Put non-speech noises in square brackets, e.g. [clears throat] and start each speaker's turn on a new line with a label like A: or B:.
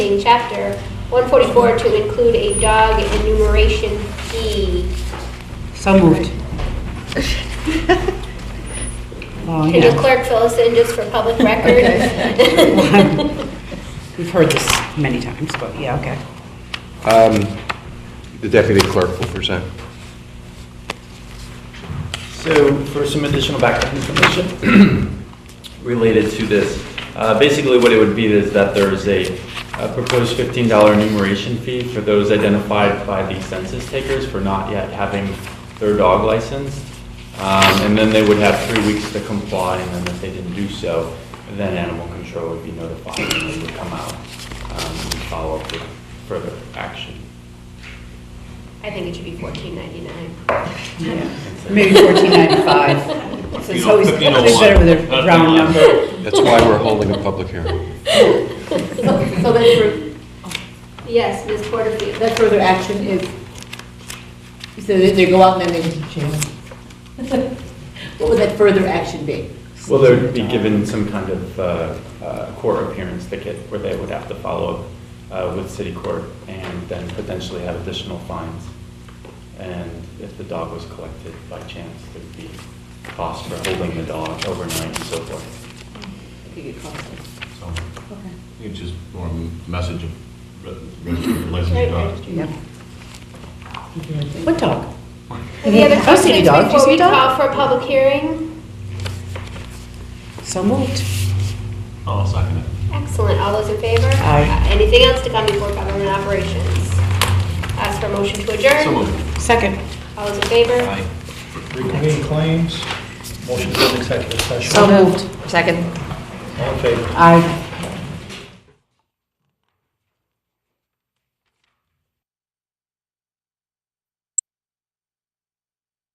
A: chapter 144 to include a dog enumeration fee.
B: So moved. Oh,
A: Can the
B: yeah,
A: clerk fill us in just for public record?
B: we've heard this many times, but yeah, okay.
C: Um, The deputy clerk will present.
D: So for some additional background information [clears throat] related to this, uh, basically what it would be is that there is a a proposed $15 enumeration fee for those identified by the census takers for not yet having their dog licensed. Um, And then they would have three weeks to comply, and then if they didn't do so, then animal control would be notified and they would come out um, and follow up with further action.
A: [laughs] I think it should be 14.99.
B: Maybe fourteen ninety-five. So it's always, it's always better with a round number.
C: That's why we're holding a public hearing.
E: So that fur-
A: Yes, Ms. Porterfield.
E: that further action is, so that they go out and then they just change. [laughs] What would that further action be?
D: Well, they'd be given some kind of uh, uh, court appearance ticket where they would have to follow up uh, with city court and then potentially have additional fines. And if the dog was collected by chance, there'd be cost for holding the dog overnight and so forth.
F: So, it's just more a message of re- re- licensed dogs.
B: Yep. What dog?
A: Any other
B: I've seen a
A: questions
B: Oh, dog. Do you
A: before
B: see a
A: we
B: dog?
A: call for a public hearing?
B: So moved.
F: I'll second it.
A: Excellent, all those in favor?
B: Aye.
A: Uh, Anything else to come before government operations? Ask for a motion to adjourn?
F: So moved.
B: Second.
A: All those in favor?
G: Reconvene claims, motion to go into executive session.
B: So moved.
G: All in favor?
B: Aye.